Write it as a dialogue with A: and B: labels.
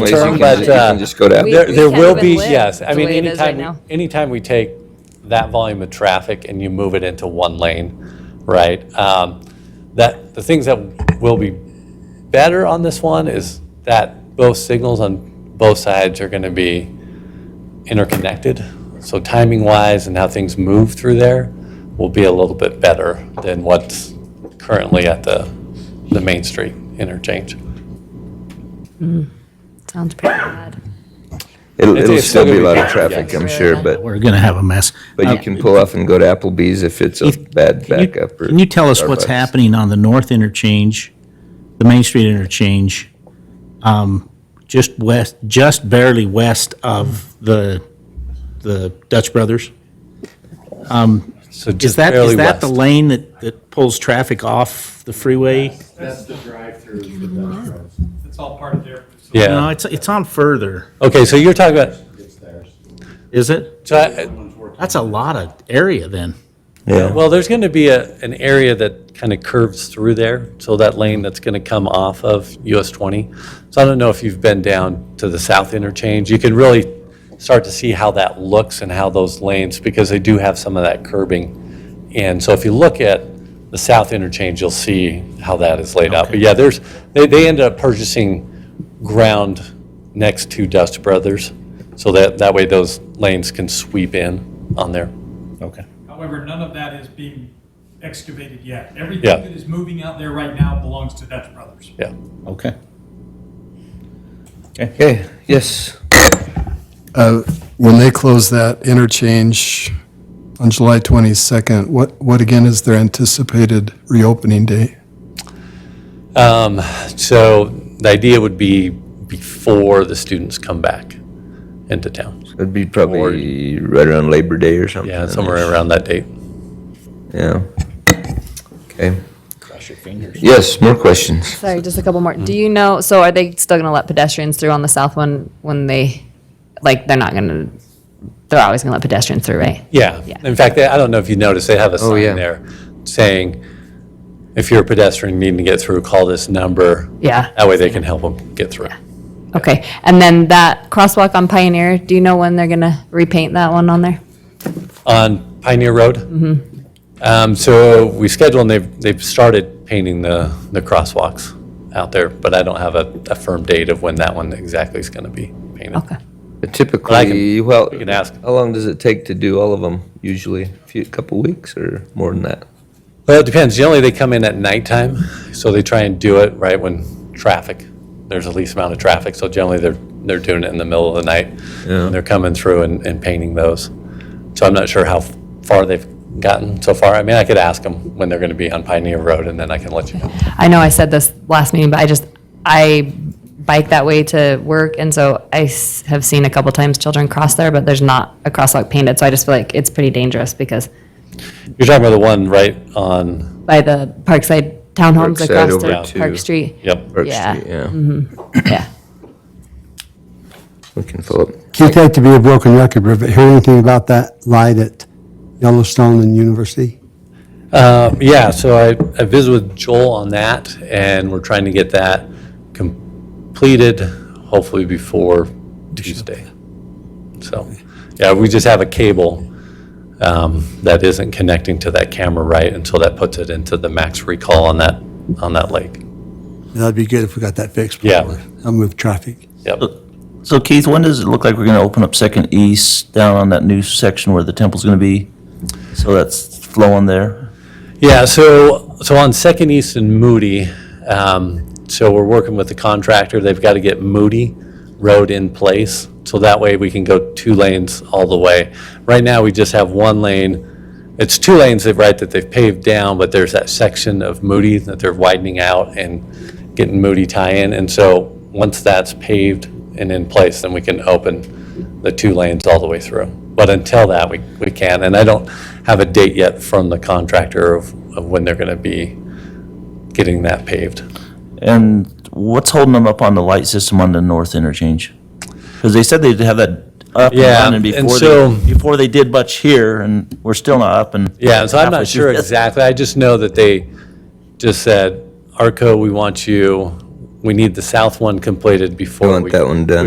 A: ways you can-
B: term, but,
A: You
B: uh,
A: can just go to,
C: We-
B: There,
A: Abington.
B: there
C: can't
B: will
C: even
B: be,
C: live
B: yes. I
C: the
B: mean,
C: way it is right
B: anytime,
C: now.
B: anytime we take that volume of traffic and you move it into one lane, right? um, That, the things that will be better on this one is that both signals on both sides are going to be interconnected. So timing wise and how things move through there will be a little bit better than what's currently at the, the Main Street interchange.
C: Sounds pretty bad.
A: it'll,
B: It's-
A: it'll
B: it's
A: still
B: still
A: be a
B: gonna
A: lot
B: be
A: of
B: packed,
A: traffic,
B: yes.
A: I'm sure, but,
D: We're going to have a mess.
A: but you can pull off and go to Applebee's if it's a bad
D: Can you-
A: backup. or
D: Can you tell us what's
A: Starbucks.
D: happening on the north interchange, the Main Street interchange, um, just west, just barely west of the, the Dutch Brothers?
B: So
D: Is
B: just
D: that, is
B: barely
D: that the
B: west.
D: lane that, that pulls traffic off the freeway?
E: That's the drive-through. It's all part of their.
D: No,
B: Yeah.
D: it's, it's on further,
B: Okay, so you're talking about,
E: It's theirs.
D: is it?
B: so I-
D: That's a lot of area then.
A: Yeah,
B: Well, there's going to be a, an area that kind of curves through there, so that lane that's going to come off of US 20. So I don't know if you've been down to the south interchange. You can really start to see how that looks and how those lanes, because they do have some of that curbing. And so if you look at the south interchange, you'll see how that is laid out. But yeah, there's, they, they ended up purchasing ground next to Dust Brothers, so that, that way those lanes can sweep in on there.
D: Okay.
E: However, none of that is being excavated yet. Everything
B: Yeah.
E: that is moving out there right now belongs to Dutch Brothers.
B: Yeah.
D: Okay.
A: okay, yes,
F: Uh, When they close that interchange on July 22nd, what, what again is their anticipated reopening date?
B: Um, so the idea would be before the students come back into town.
A: it'd be probably right around Labor Day or something.
B: Yeah, somewhere around that date.
A: Yeah. Okay,
D: Cross your fingers.
A: yes, more questions?
C: Sorry, just a couple more. Do you know, so are they still gonna let pedestrians through on the south one when they, like, they're not gonna, they're always gonna let pedestrians through, right?
B: Yeah.
C: Yeah.
B: In fact, they- I don't know if you noticed, they have a
A: yeah.
B: sign there saying, if you're a pedestrian needing to get through, call this number.
C: Yeah.
B: That way they can help them get through.
C: Okay, and then that crosswalk on Pioneer, do you know when they're gonna repaint that one on there?
B: On Pioneer Road?
C: Mm-hmm.
B: Um, so we scheduled and they've, they've started painting the, the crosswalks out there, but I don't have a, a firm date of when that one exactly is going to be painted.
C: Okay.
A: Typically, well,
B: we can ask.
A: how long does it take to do all of them usually? A few, couple weeks or more than that?
B: Well, it depends. Generally, they come in at nighttime, so they try and do it right when traffic, there's the least amount of traffic. So generally, they're, they're doing it in the middle of the night. And they're coming through and, and painting those. So I'm not sure how far they've gotten so far. I mean, I could ask them when they're going to be on Pioneer Road, and then I can let you know.
C: I know I said this last meeting, but I just, I bike that way to work, and so I s- have seen a couple times children cross there, but there's not a crosswalk painted, so I just feel like it's pretty dangerous because
B: You're talking about the one right on,
C: by the Parkside Townhomes
A: Parkside
C: across
A: over
C: to
A: to-
C: Park Street.
B: yep.
A: Park
C: Yeah.
A: Street, Yeah,
C: Yeah.
A: we can fill up.
G: Can't hate to be a broken record, Rick, but hear anything about that light at Yellowstone and University?
B: Uh, Yeah, so I, I visited with Joel on that, and we're trying to get that completed, hopefully before Tuesday. So, yeah, we just have a cable um, that isn't connecting to that camera right, and so that puts it into the max recall on that, on that lake.
G: That'd be good if we got that fixed.
B: Yeah.
G: I'll move traffic.
B: Yep.
H: So Keith, when does it look like we're gonna open up Second East down on that new section where the temple's gonna be? So that's flowing there?
B: Yeah, so, so on Second East and Moody, um, so we're working with the contractor, they've got to get Moody Road in place, so that way we can go two lanes all the way. Right now, we just have one lane, it's two lanes, that right, that they've paved down, but there's that section of Moody that they're widening out and getting Moody tie-in, and so, once that's paved and in place, then we can open the two lanes all the way through. But until that, we, we can, and I don't have a date yet from the contractor of, of when they're gonna be getting that paved.
H: And what's holding them up on the light system on the north interchange? Because they said they'd have that up and
B: Yeah,
H: running
B: and
H: before
B: so-
H: they, before they did much here, and we're still not up and.
B: Yeah, so I'm
H: halfway
B: not sure
H: through.
B: exactly, I just know that they just said, Arco, we want you,
I: we need the south one completed before
B: want
I: we-
B: that one done.